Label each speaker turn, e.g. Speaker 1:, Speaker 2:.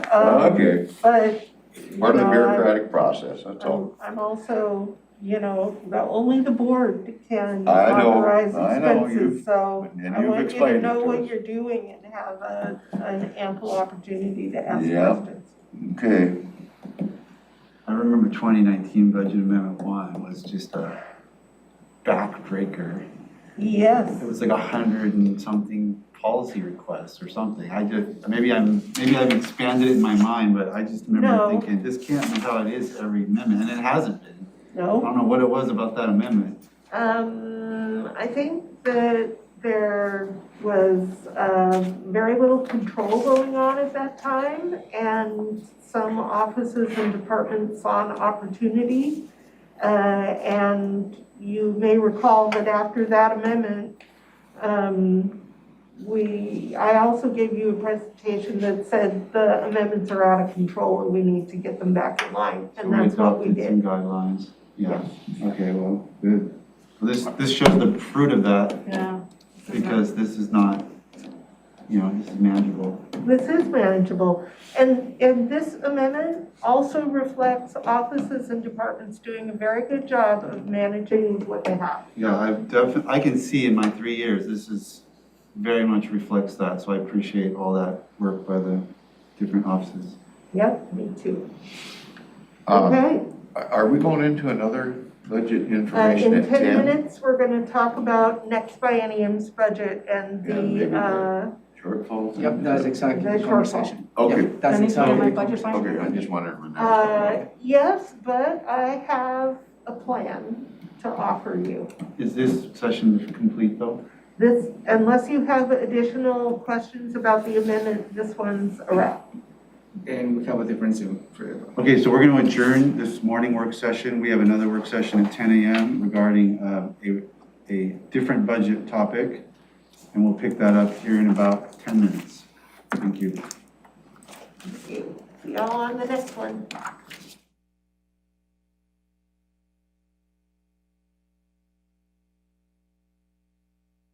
Speaker 1: Um,
Speaker 2: Okay,
Speaker 1: But, you
Speaker 2: part of the
Speaker 1: know, I-
Speaker 2: bureaucratic process, that's all.
Speaker 1: I'm, I'm also, you know, the, only the board can
Speaker 2: I know,
Speaker 1: authorize
Speaker 2: I know,
Speaker 1: expenses, so
Speaker 2: and
Speaker 1: I
Speaker 2: you've
Speaker 1: want you to
Speaker 2: explained it
Speaker 1: know
Speaker 2: to
Speaker 1: what
Speaker 2: us.
Speaker 1: you're doing and have a, an ample opportunity to ask
Speaker 2: Yeah.
Speaker 1: questions.
Speaker 2: Okay,
Speaker 3: I remember twenty nineteen budget amendment one was just a backbreaker. It
Speaker 1: Yes,
Speaker 3: was like a hundred and something policy requests or something. I just, maybe I'm, maybe I've expanded it in my mind, but I just
Speaker 1: No.
Speaker 3: remember thinking, this can't be how it is every amendment, and it hasn't been. I
Speaker 1: no,
Speaker 3: don't know what it was about that amendment.
Speaker 1: um, I think that there was, um, very little control going on at that time, and some offices and departments saw an opportunity Uh, And you may recall that after that amendment, um, we, I also gave you a presentation that said the amendments are out of control and we need to get them back in line.
Speaker 3: So
Speaker 1: And that's what we
Speaker 3: adopted Some
Speaker 1: did.
Speaker 3: guidelines, yeah, okay, well, good. Well, This, this shows the fruit of that,
Speaker 1: Yeah.
Speaker 3: because this is not, you know, this is manageable.
Speaker 1: This is manageable. And, and this amendment also reflects offices and departments doing a very good job of managing what they have.
Speaker 3: Yeah, I've definitely, I can see in my three years, this is, very much reflects that, so I appreciate all that work by the different offices.
Speaker 1: Yep, me too.
Speaker 2: um,
Speaker 1: Okay.
Speaker 2: are we going into another budget
Speaker 1: Uh,
Speaker 2: information
Speaker 1: In
Speaker 2: at
Speaker 1: 10
Speaker 2: ten?
Speaker 1: minutes, we're going to talk about next biennium's budget and
Speaker 2: Yeah, maybe
Speaker 1: the, uh,
Speaker 2: Shortfall? thing?
Speaker 4: Yep, that's exactly
Speaker 1: Very
Speaker 4: the
Speaker 1: short.
Speaker 4: conversation.
Speaker 2: Okay.
Speaker 4: Yep, That's
Speaker 5: Let me go to my
Speaker 4: exactly.
Speaker 5: budget line.
Speaker 2: Okay, I just wondered when that was coming
Speaker 1: uh, yes, but I have a plan to offer you.
Speaker 3: Is this session complete though?
Speaker 1: This, unless you have additional questions about the amendment, this one's a wrap.
Speaker 4: And we have a different Zoom for.
Speaker 3: Okay, so we're gonna adjourn this morning work session, we have another work session at ten AM regarding, uh, a, a different budget topic. And we'll pick that up here in about ten minutes. Thank you.
Speaker 1: See y'all on the next one.